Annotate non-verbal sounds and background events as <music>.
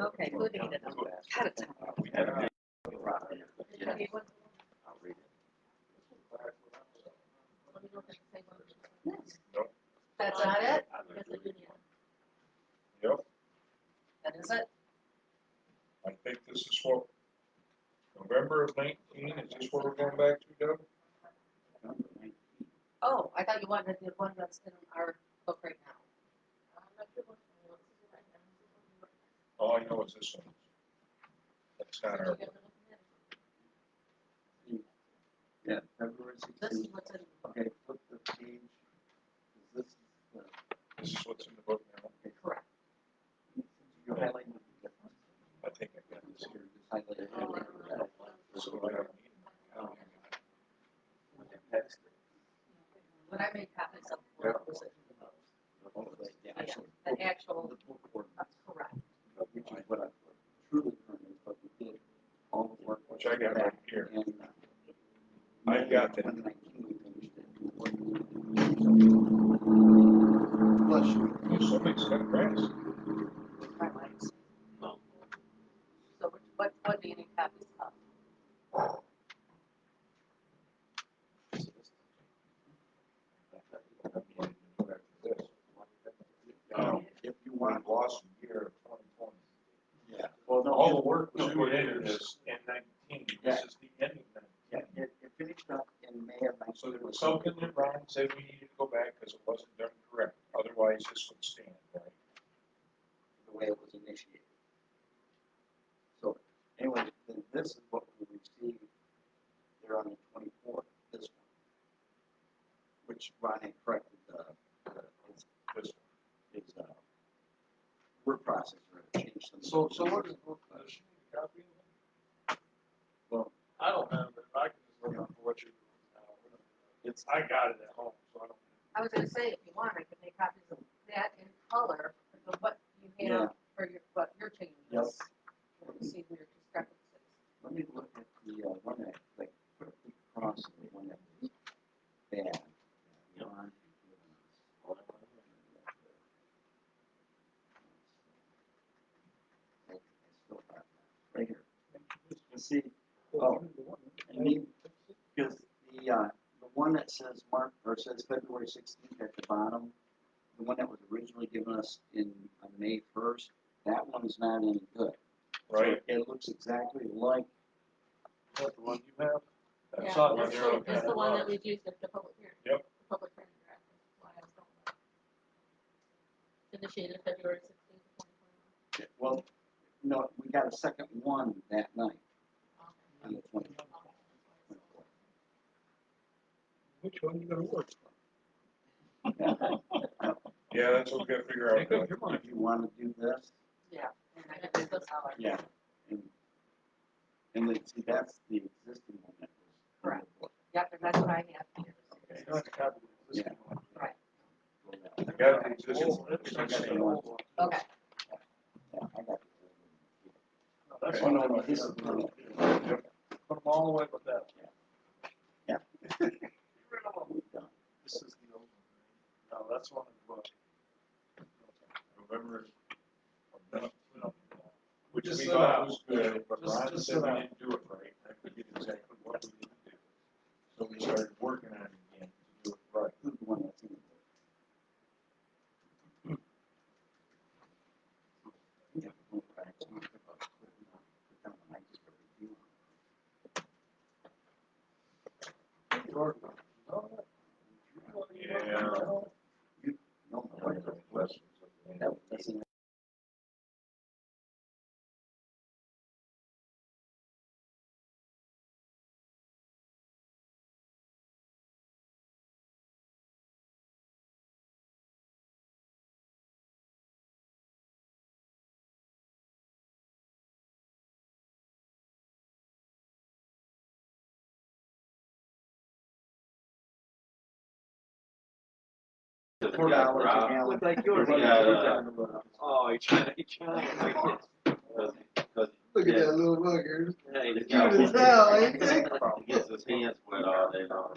Okay, good. to get it out. Out of time. That's not it? Yep, That is it? I think this is what, November of nineteen, is this what we're going back to, Doug? Oh, I thought you wanted the one that's in our book right now. All I know is this one. That's not our, Yeah, February This is sixteenth. what's in, Okay, flip the page. Is This the, this is what's in the book now. okay, correct. you're highlighting the difference. I think I got this So here. you're just highlighting that. This is what I need. Um, that's- when I made copies of the Yeah. book, it was Oh, that's the Yeah. actual- the actual, The book ordinance, that's correct. Which is what I truly learned, but we did all the work. Which I got right here. And, uh, I've got that. 2019 we finished it. Bless you. There's so many stuff, grass. My lines. So which- what, what do you need copies of? Um, If you want to lost a year of twenty twenty. Yeah, well, no, All all the work was No, put it into is. this in nineteen, this is the end of nineteen. yeah, it, it finished up in May of nineteen. So there was something that Ron said we needed to go back because it wasn't done correct, otherwise this would stand, right? The way it was initiated. So anyway, then this is what we received there on the twenty-fourth, this one. Which Ron had corrected the, the, his- This, his, uh, word processor, had changed some. So, so what is, does she need a copy of it? Well, I don't have it, I can just look up what you. it's, I got it at home, so I don't. I was gonna say, if you want, I can make copies of that in color, but what you Yeah. have for your, what your changes. Yep. We'll See where your discrepancies. let me look at the, uh, one that, like, put the cross in the one that was bad. uh, Ron had given us. I still have that, right here. You see, oh, I mean, because the, uh, the one that says Mark, or says February sixteenth at the bottom, the one that was originally given us in, on May first, that one is not any good. right? It looks exactly like That's the one you have? Yeah, That's not that's one the- you're looking That's at. the one that we've used at the public hearing. Yep. The Public hearing draft. That's why I was going back. Initiated February sixteenth, twenty twenty-one. Well, no, we got a second one that night on the <laughs> twenty. Which one you gonna work? Yeah, that's what we gotta figure out. your If you wanna do this, Yeah. And I can make those color. yeah, and, and then, see, that's the existing one that was. Correct. Yep, and that's what I have here. You don't have to copy it, this Yeah. one. Right, Yeah, I got the existing Oh, one. that's- I got that's the the old one. I okay. got it. No, That's Oh, one no, I no, got. this is the- Put them all away but that. Yeah. We've done. This is the old one. No, that's one of the. November, No, no. which Just we so thought that- was good, but just- Ron just said so we that- didn't do it right. I forget exactly what we didn't do. So we started working on it again to do it right. Who's the one that's in it? Yeah, well, I actually talked about putting it on, but that one I just put a review on. Yeah. No, no, One of the lessons of the- that doesn't Forty hours a gallon. Look like yours. Yeah. Oh, he tried, he tried. Look at that little bugger. Yeah, he's Cute as hell, ain't he? He gets his hands wet all day long.